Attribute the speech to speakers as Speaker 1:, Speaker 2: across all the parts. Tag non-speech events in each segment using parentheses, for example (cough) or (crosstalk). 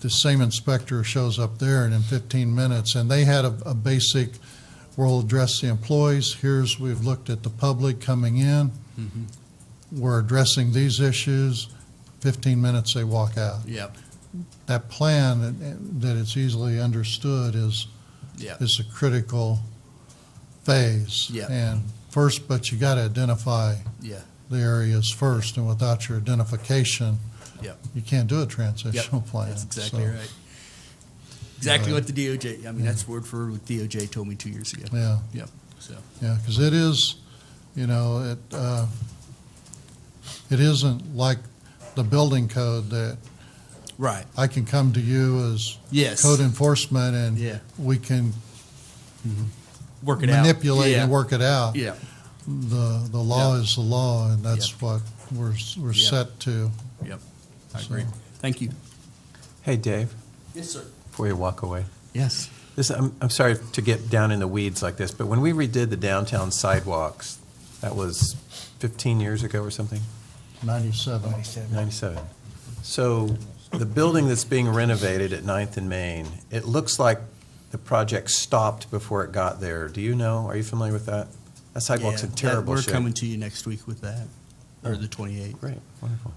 Speaker 1: the same inspector shows up there and in 15 minutes, and they had a, a basic, we'll address the employees, here's, we've looked at the public coming in,
Speaker 2: Mm-hmm.
Speaker 1: we're addressing these issues, 15 minutes they walk out.
Speaker 2: Yep,
Speaker 1: That plan, that- that it's easily understood is,
Speaker 2: yep,
Speaker 1: is a critical phase.
Speaker 2: Yeah.
Speaker 1: And first, but you got to identify
Speaker 2: yeah,
Speaker 1: the areas first, and without your identification,
Speaker 2: yep.
Speaker 1: you can't do a
Speaker 2: Yep,
Speaker 1: transitional plan.
Speaker 2: That's exactly
Speaker 1: So,
Speaker 2: right. Exactly
Speaker 1: Uh,
Speaker 2: what the DOJ, I mean, that's word for word what DOJ told me two years ago.
Speaker 1: Yeah,
Speaker 2: Yep, so,
Speaker 1: yeah, because it is, you know, it, uh, it isn't like the building code that
Speaker 2: right,
Speaker 1: I can come to you as
Speaker 2: yes.
Speaker 1: code enforcement and
Speaker 2: Yeah.
Speaker 1: we can
Speaker 2: Work it out.
Speaker 1: manipulate
Speaker 2: Yeah,
Speaker 1: and work it out.
Speaker 2: Yeah,
Speaker 1: The, the law
Speaker 2: Yeah.
Speaker 1: is the law, and that's
Speaker 2: Yeah.
Speaker 1: what we're, we're
Speaker 2: Yeah.
Speaker 1: set to.
Speaker 2: yep, I agree. Thank you.
Speaker 3: Hey, Dave,
Speaker 2: Yes, sir.
Speaker 3: before you walk away,
Speaker 2: Yes,
Speaker 3: this, I'm, I'm sorry to get down in the weeds like this, but when we redid the downtown sidewalks, that was 15 years ago or something?
Speaker 1: 97.
Speaker 3: 97. So the building that's being renovated at Ninth and Main, it looks like the project stopped before it got there. Do you know, are you familiar with that? That
Speaker 2: yeah,
Speaker 3: sidewalk's in
Speaker 2: that-
Speaker 3: terrible
Speaker 2: we're
Speaker 3: shape.
Speaker 2: coming to you next week with that,
Speaker 1: Oh.
Speaker 2: or the twenty-eighth.
Speaker 3: Great, wonderful.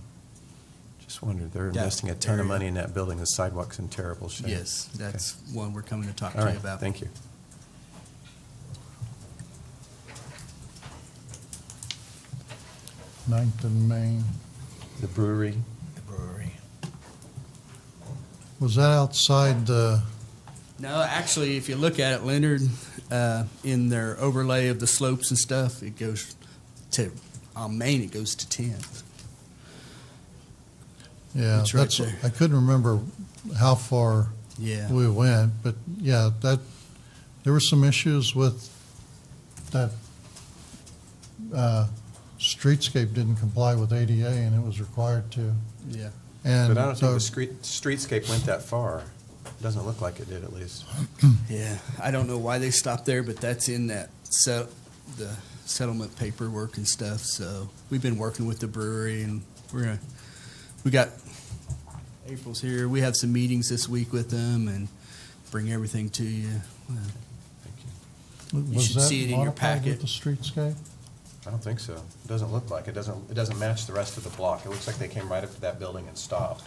Speaker 3: Just wondered, they're
Speaker 2: That
Speaker 3: investing a ton of
Speaker 2: area.
Speaker 3: money in that building, the sidewalk's in terrible shape.
Speaker 2: Yes, that's one we're coming to talk to
Speaker 3: All
Speaker 2: you
Speaker 3: right,
Speaker 2: about.
Speaker 3: thank you.
Speaker 1: Ninth and Main.
Speaker 3: The brewery?
Speaker 1: Was that outside the,
Speaker 2: No, actually, if you look at it, Leonard, uh, in their overlay of the slopes and stuff, it goes to, on Main, it goes to tenth.
Speaker 1: yeah,
Speaker 2: It's right
Speaker 1: that's,
Speaker 2: there.
Speaker 1: I couldn't remember how far
Speaker 2: Yeah.
Speaker 1: we went, but yeah, that, there were some issues with that, uh, streetscape didn't comply with ADA and it was required to.
Speaker 2: Yeah.
Speaker 3: But
Speaker 1: And
Speaker 3: I don't think
Speaker 1: so
Speaker 3: the street, streetscape went that far. Doesn't look like it did, at least.
Speaker 2: Yeah. I don't know why they stopped there, but that's in that set, the settlement paperwork and stuff. So we've been working with the brewery and we're gonna, we got April's here. We have some meetings this week with them and bring everything to you. Well,
Speaker 1: was
Speaker 2: should
Speaker 1: that
Speaker 2: see it in your
Speaker 1: modified with
Speaker 2: packet.
Speaker 1: the streetscape?
Speaker 3: I don't think so. It Doesn't look like, it doesn't, it doesn't match the rest of the block. It looks like they came right up to that building and stopped.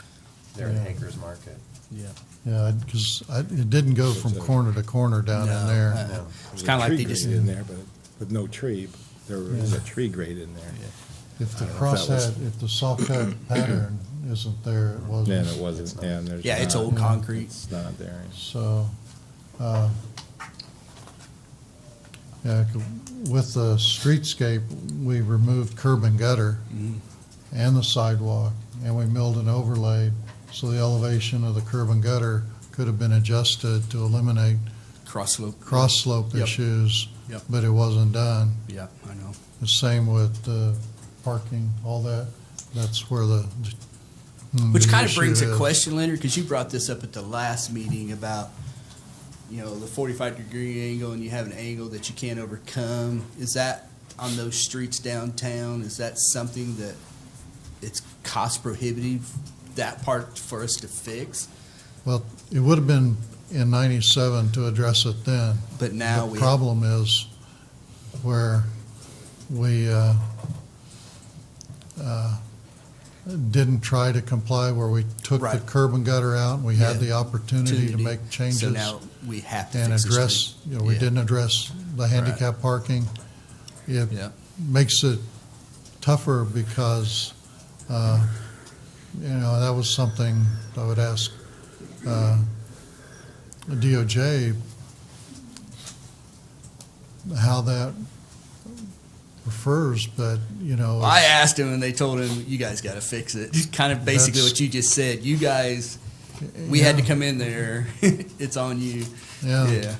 Speaker 3: They're in
Speaker 1: Yeah.
Speaker 3: Hager's Market.
Speaker 2: Yeah.
Speaker 1: Yeah, because it didn't go from corner to corner down in
Speaker 2: No,
Speaker 1: there.
Speaker 2: uh-uh.
Speaker 3: No.
Speaker 2: It's kind of like
Speaker 4: There's
Speaker 2: they
Speaker 4: a tree
Speaker 2: just
Speaker 4: grate in there, but with no tree, there is a tree grate in there.
Speaker 1: If the
Speaker 4: I don't know if that was-
Speaker 1: crosshead, if the soft cut pattern isn't there, it
Speaker 4: Yeah,
Speaker 1: wasn't.
Speaker 4: and it wasn't, yeah, and there's.
Speaker 2: Yeah, it's
Speaker 4: not-
Speaker 2: old concrete.
Speaker 4: It's not there.
Speaker 1: So, uh, yeah, c- with the streetscape, we removed curb and gutter
Speaker 2: Mm-hmm.
Speaker 1: and the sidewalk, and we milled and overlaid, so the elevation of the curb and gutter could have been adjusted to eliminate
Speaker 2: cross slope.
Speaker 1: cross slope
Speaker 2: Yep.
Speaker 1: issues,
Speaker 2: Yep.
Speaker 1: but it wasn't done.
Speaker 2: Yeah, I know.
Speaker 1: The same with the parking, all that, that's where the. mm,
Speaker 2: Which
Speaker 1: the
Speaker 2: kind of
Speaker 1: issue
Speaker 2: brings a
Speaker 1: is.
Speaker 2: question, Leonard, because you brought this up at the last meeting about, you know, the forty-five degree angle and you have an angle that you can't overcome. Is that on those streets downtown? Is that something that it's cost prohibitive, that part for us to fix?
Speaker 1: Well, it would have been in ninety-seven to address it then.
Speaker 2: But now
Speaker 1: The
Speaker 2: we,
Speaker 1: problem is where we uh, uh, didn't try to comply, where we took the
Speaker 2: Right.
Speaker 1: curb and gutter out, and we had
Speaker 2: Yeah.
Speaker 1: the opportunity to
Speaker 2: Opportunity.
Speaker 1: make
Speaker 2: so
Speaker 1: changes
Speaker 2: now we have to
Speaker 1: and
Speaker 2: fix the street.
Speaker 1: address, you know, we
Speaker 2: Yeah.
Speaker 1: didn't address the handicap parking. It
Speaker 2: Yeah.
Speaker 1: makes it tougher because, uh, you know, that was something I would ask uh, DOJ, how that refers, but, you know.
Speaker 2: I asked him and they told him, you guys got to fix it. kind of basically
Speaker 1: That's-
Speaker 2: what you just said. You guys, we had to come in there. (laughs) it's on you.
Speaker 1: Yeah.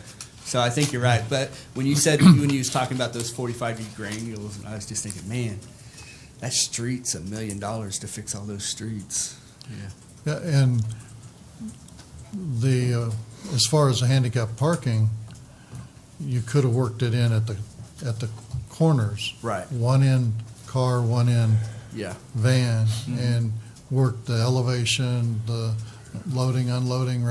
Speaker 2: So I think you're right. But when you said, when you was talking about those 45 degree granules, I was just thinking, man, that street's a million dollars to fix all those streets.
Speaker 1: Yeah, And the, uh, as far as the handicap parking, you could have worked it in at the, at the corners.
Speaker 2: Right.
Speaker 1: One in car, one in
Speaker 2: Yeah.
Speaker 1: van, and worked the elevation, the loading, unloading,